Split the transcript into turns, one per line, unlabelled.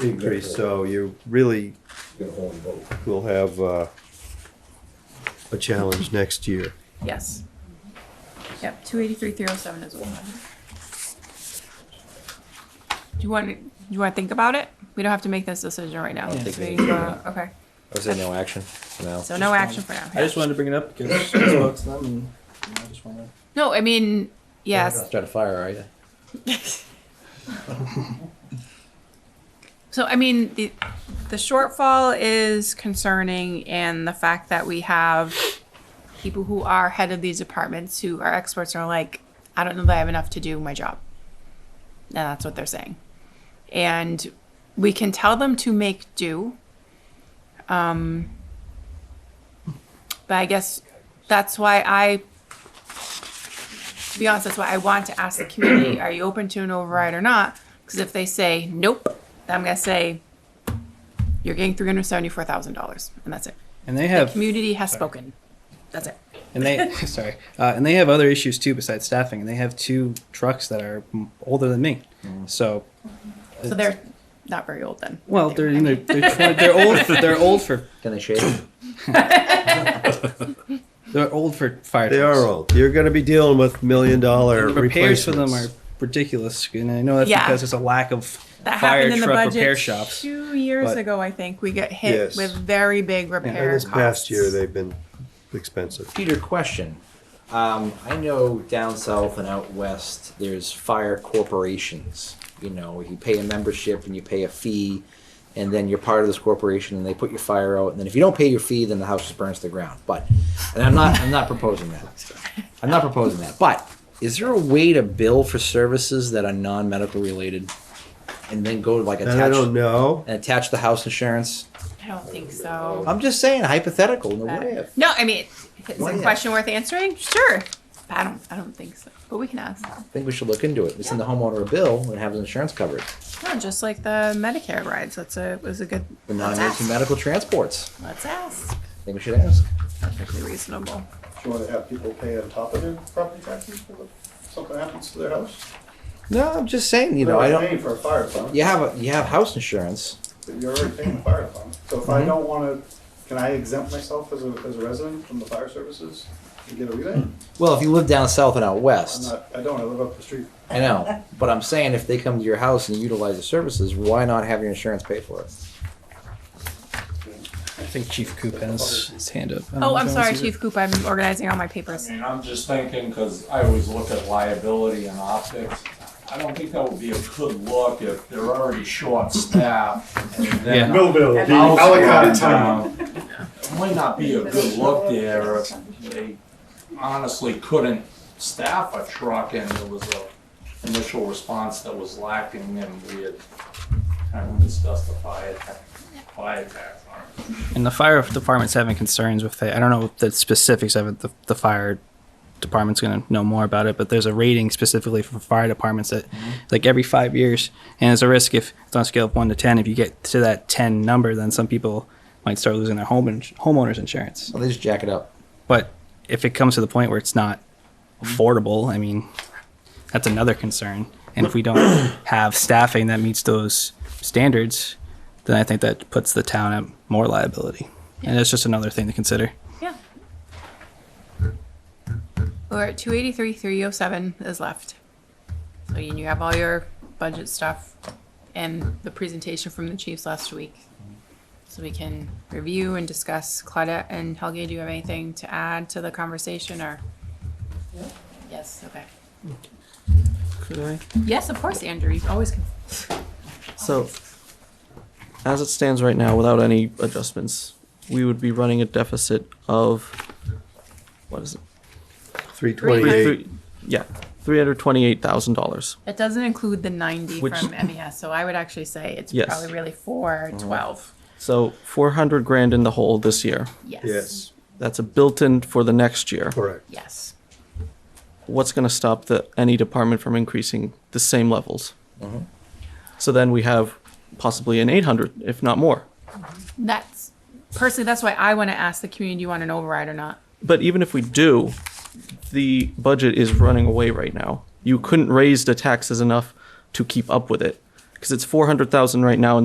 increase, so you really
Get a horn vote.
will have, uh, a challenge next year.
Yes. Yep, two eighty-three, three oh seven is one. Do you want, you wanna think about it? We don't have to make this decision right now.
I don't
Just
think
waiting
we-
for- Okay,
I would say no action for now.
so no action for now.
I just wanted to bring it up because I spoke to them and you know, I just want to.
No, I mean, yes,
Try to fire, her, are you?
So I mean, the the shortfall is concerning, and the fact that we have people who are head of these departments who are experts and are like, I don't know that I have enough to do my job. And that's what they're saying, and we can tell them to make do. Um, but I guess that's why I. To be honest, that's why I want to ask the community: Are you open to an override or not? Because if they say nope, then I'm gonna say you're getting three hundred seventy-four thousand dollars, and that's it.
And they
The
have
community has spoken. That's it.
and they sorry uh, and they have other issues too besides staffing. And they have two trucks that are m- older than me, so
So they're not very old then.
well they're in their, they're, twen- they're old they're old for
Can they shave?
they're old for fire.
They
trucks.
are old. You're gonna be dealing with million dollar
The repairs for them are
replacements.
ridiculous, and I know that's
Yeah.
because there's a lack of
That
fire
happened in the
truck repair
budget
shops.
two years
but-
ago, I think. We get hit
Yes.
with very big repair
This
costs.
past year, they've been expensive.
Peter, question. Um, I know down south and out west, there's fire corporations. You know, you pay a membership and you pay a fee, and then you're part of this corporation, and they put your fire out. And then if you don't pay your fee, then the house just burns to the ground. But, and I'm not, I'm not proposing that. I'm not proposing that. But is there a way to bill for services that are non-medical related, and then go to like attach
And I don't know.
and attach the house insurance?
I don't think so.
I'm just saying hypothetical. No, what if?
No, I mean, if it's
What
a
if?
question worth answering. Sure. But I don't. I don't think so. But we can ask.
I think we should look into it. We send the homeowner a bill and have his insurance covered.
No, just like the Medicare rides. That's a was a good.
The
let's
non-emergency
ask.
medical transports.
Let's ask.
I think we should ask.
Perfectly reasonable.
Do you wanna have people pay on top of their property taxes for the- something happens to their house?
No, I'm just saying. You know, I
They're
don't.
Paying for a fire fund,
You have a you have house insurance.
but you're already paying the fire fund. So if
Mm-hmm.
I don't wanna, can I exempt myself as a, as a resident from the fire services and get a rebate?
Well, if you live down south and out
I'm
west,
not, I don't, I live up the street.
I know. But I'm saying if they come to your house and utilize the services, why not have your insurance pay for it?
I think Chief Coop has his hand up. I don't
Oh,
know
I'm
if
sorry,
Alan's either.
Chief Coop. I'm organizing all my
I
papers.
mean, I'm just thinking, because I always look at liability and optics. I don't think that would be a good look if they're already short staffed and then.
Yeah.
Millville,
the house burns down. It might not be a good look there if they honestly couldn't staff a truck and there was a initial response that was lacking and we had kind of discussed the fire tax, fire tax on it.
And the fire department's having concerns with it. I don't know the specifics of it. The, the fire department's going to know more about it, but there's a rating specifically for fire departments that, like, every five years. And there's a risk if it's on a scale of one to 10, if you get to that 10 number, then some people might start losing their home ins- homeowner's insurance.
Well, they just jack it up.
But if it comes to the point where it's not affordable, I mean, that's another concern. And if we don't have staffing that meets those standards, then I think that puts the town at more liability. And that's just another thing to consider.
Yeah. We're at two eighty-three, three oh seven is left. So you you have all your budget stuff and the presentation from the chiefs last week. So we can review and discuss. Claudette and Helge, do you have anything to add to the conversation or? Yes, okay.
Could I?
Yes, of course, Andrew, you always can.
So, as it stands right now, without any adjustments, we would be running a deficit of, what is it?
Three twenty-eight.
Three- Yeah, three hundred twenty-eight thousand dollars.
That doesn't include the ninety
Which-
from MES, so I would actually say it's
Yes. Oh.
probably really four twelve.
So four hundred grand in the hole this year.
Yes.
Yes,
That's a built-in for the next year.
correct.
Yes.
What's gonna stop the, any department from increasing the same levels? So then we have possibly an eight hundred, if not more.
That's personally, that's why I want to ask the community, do you want an override or not?
But even if we do, the budget is running away right now. You couldn't raise the taxes enough to keep up with it because it's 400,000 right now and